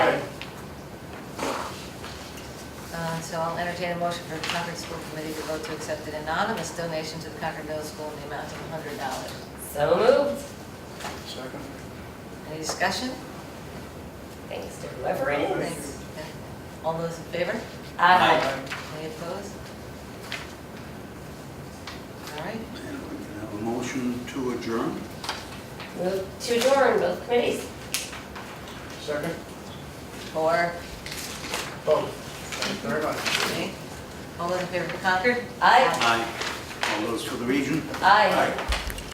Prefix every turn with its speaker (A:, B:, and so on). A: Uh, So I'll entertain a motion for the Concord School Committee to vote to accept an anonymous donation to the Concord Middle School in the amount of hundred dollars.
B: So moved.
C: Second?
A: Any discussion?
B: Thanks to whoever it is.
A: Thanks. All those in favor?
B: Aye.
A: Any opposed? All right,
C: And we can have a motion to adjourn?
B: Move to adjourn both committees.
C: Second?
A: four,
C: Both. Thank you very much.
A: okay. All those in favor for Concord?
B: Aye.
C: Aye. All those for the region?
B: Aye.